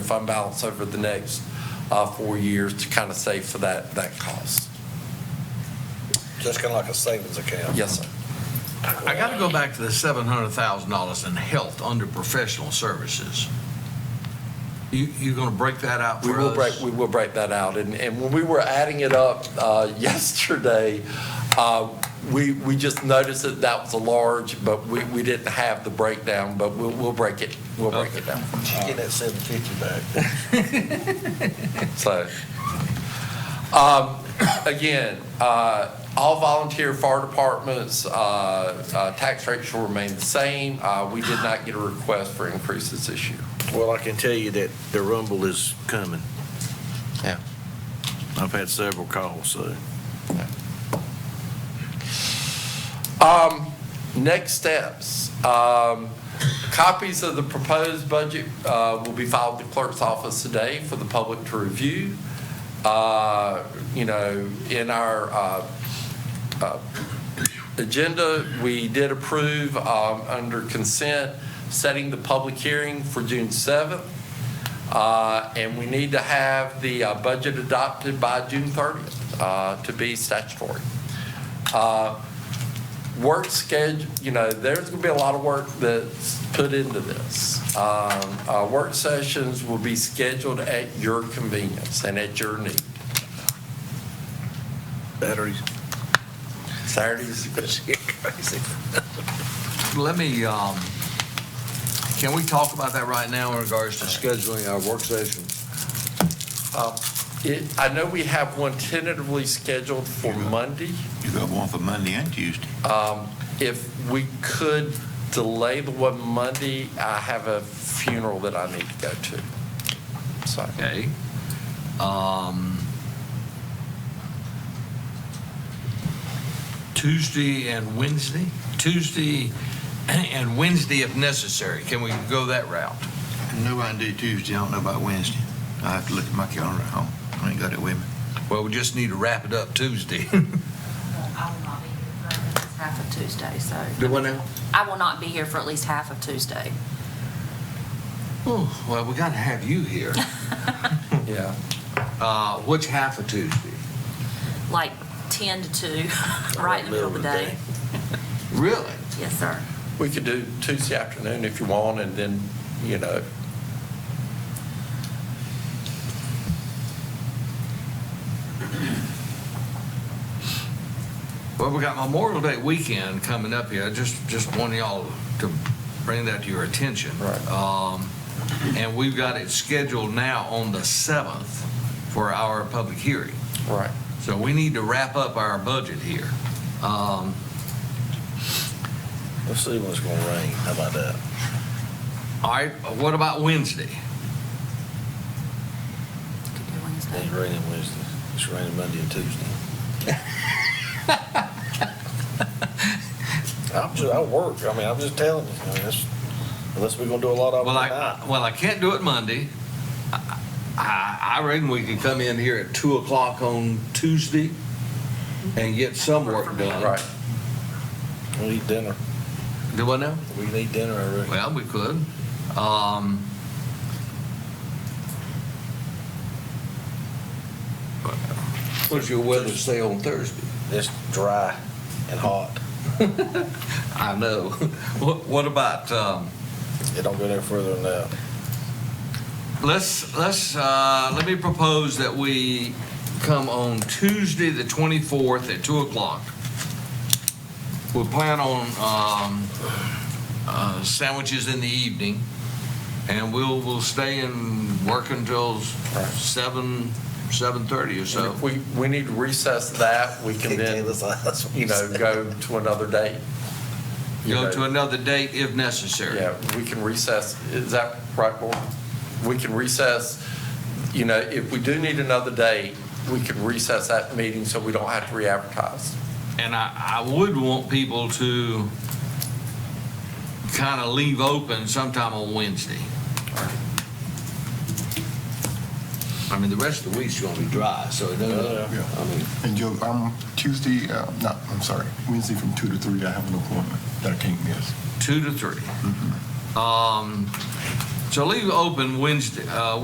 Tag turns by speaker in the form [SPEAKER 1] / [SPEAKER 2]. [SPEAKER 1] fund balance over the next uh, four years to kind of save for that, that cost.
[SPEAKER 2] Just kind of like a savings account.
[SPEAKER 1] Yes, sir.
[SPEAKER 3] I got to go back to the seven hundred thousand dollars in health under professional services. You, you going to break that out
[SPEAKER 1] We
[SPEAKER 3] for
[SPEAKER 1] will break,
[SPEAKER 3] us?
[SPEAKER 1] we will break that out. And, and when we were adding it up uh, yesterday, uh, we, we just noticed that that was a large, but we, we didn't have the breakdown, but we'll, we'll break it, we'll break it down.
[SPEAKER 2] She's getting that seven fifty back.
[SPEAKER 1] So, um, again, uh, all volunteer fire departments, uh, uh, tax rates will remain the same. Uh, We did not get a request for increases this year.
[SPEAKER 4] Well, I can tell you that the rumble is coming.
[SPEAKER 1] Yeah.
[SPEAKER 4] I've had several calls, so.
[SPEAKER 1] Um, next steps, um, copies of the proposed budget, uh, will be filed at the clerk's office today for the public to review. Uh, you know, in our, uh, uh, agenda, we did approve, um, under consent, setting the public hearing for June seventh. Uh, and we need to have the, uh, budget adopted by June thirtieth, uh, to be statutory. Uh, work schedule, you know, there's going to be a lot of work that's put into this. Um, uh, Work sessions will be scheduled at your convenience and at your need.
[SPEAKER 4] Batteries.
[SPEAKER 1] Saturdays,
[SPEAKER 3] Let me, um, can we talk about that right now in regards to scheduling our work sessions?
[SPEAKER 1] it- I know we have one tentatively scheduled for Monday.
[SPEAKER 5] You got one for Monday and Tuesday.
[SPEAKER 1] Um, If we could delay the one Monday, I have a funeral that I need to go to. So,
[SPEAKER 3] Okay. Um, Tuesday and Wednesday? Tuesday and Wednesday if necessary. Can we go that route?
[SPEAKER 5] No, I can do Tuesday, I don't know about Wednesday. I have to look at my calendar at home, I ain't got it with me.
[SPEAKER 3] Well, we just need to wrap it up Tuesday.
[SPEAKER 6] I will not be here for at least half of Tuesday, so.
[SPEAKER 3] Do what now?
[SPEAKER 6] I will not be here for at least half of Tuesday.
[SPEAKER 3] Oh, well, we got to have you here.
[SPEAKER 1] yeah.
[SPEAKER 3] Uh, which half of Tuesday?
[SPEAKER 6] Like 10 to 2, right in the middle of the day.
[SPEAKER 3] Really?
[SPEAKER 6] Yes, sir.
[SPEAKER 1] We could do Tuesday afternoon if you want, and then, you know,
[SPEAKER 3] Well, we got Memorial Day weekend coming up here. I just, just want y'all to bring that to your attention.
[SPEAKER 1] Right.
[SPEAKER 3] Um, and we've got it scheduled now on the 7th for our public hearing.
[SPEAKER 1] right.
[SPEAKER 3] So we need to wrap up our budget here. Um,
[SPEAKER 2] Let's see when it's gonna rain. How about that?
[SPEAKER 3] all right, what about Wednesday?
[SPEAKER 6] Could do Wednesday.
[SPEAKER 2] It's raining Wednesday. It's raining Monday and Tuesday. I'm just, I work. I mean, I'm just telling you, I mean, that's, unless we're gonna do a lot of it
[SPEAKER 3] Well,
[SPEAKER 2] tonight.
[SPEAKER 3] I, well, I can't do it Monday. I, I I reckon we could come in here at two o'clock on Tuesday and get some work done.
[SPEAKER 1] Right.
[SPEAKER 2] We need dinner.
[SPEAKER 3] Do what now?
[SPEAKER 2] We need dinner, I reckon.
[SPEAKER 3] Well, we could. Um, what does your weather say on Thursday?
[SPEAKER 2] It's dry and hot.
[SPEAKER 3] I know. What, what about, um,
[SPEAKER 2] It don't go no further than that.
[SPEAKER 3] let's, let's, uh, let me propose that we come on Tuesday, the 24th at 2 o'clock. We'll plan on, um, uh, sandwiches in the evening and we'll, we'll stay and work until seven, 7:30 or
[SPEAKER 1] And
[SPEAKER 3] so.
[SPEAKER 1] if we, we need to recess that, we can then, you know, go to another date. You
[SPEAKER 3] Go
[SPEAKER 1] know,
[SPEAKER 3] to another date if necessary.
[SPEAKER 1] Yeah, we can recess, is that right, Board? We can recess, you know, if we do need another date, we can recess that meeting so we don't have to re-advertise.
[SPEAKER 3] And I, I would want people to kind of leave open sometime on Wednesday. I mean, the rest of the week's gonna be dry, so it doesn't,
[SPEAKER 2] Yeah.
[SPEAKER 3] I mean,
[SPEAKER 7] And Joe, um, Tuesday, uh, no, I'm sorry, Wednesday from two to three, I have an appointment that I can't miss.
[SPEAKER 3] two to three. Um, so leave open Wednesday, uh,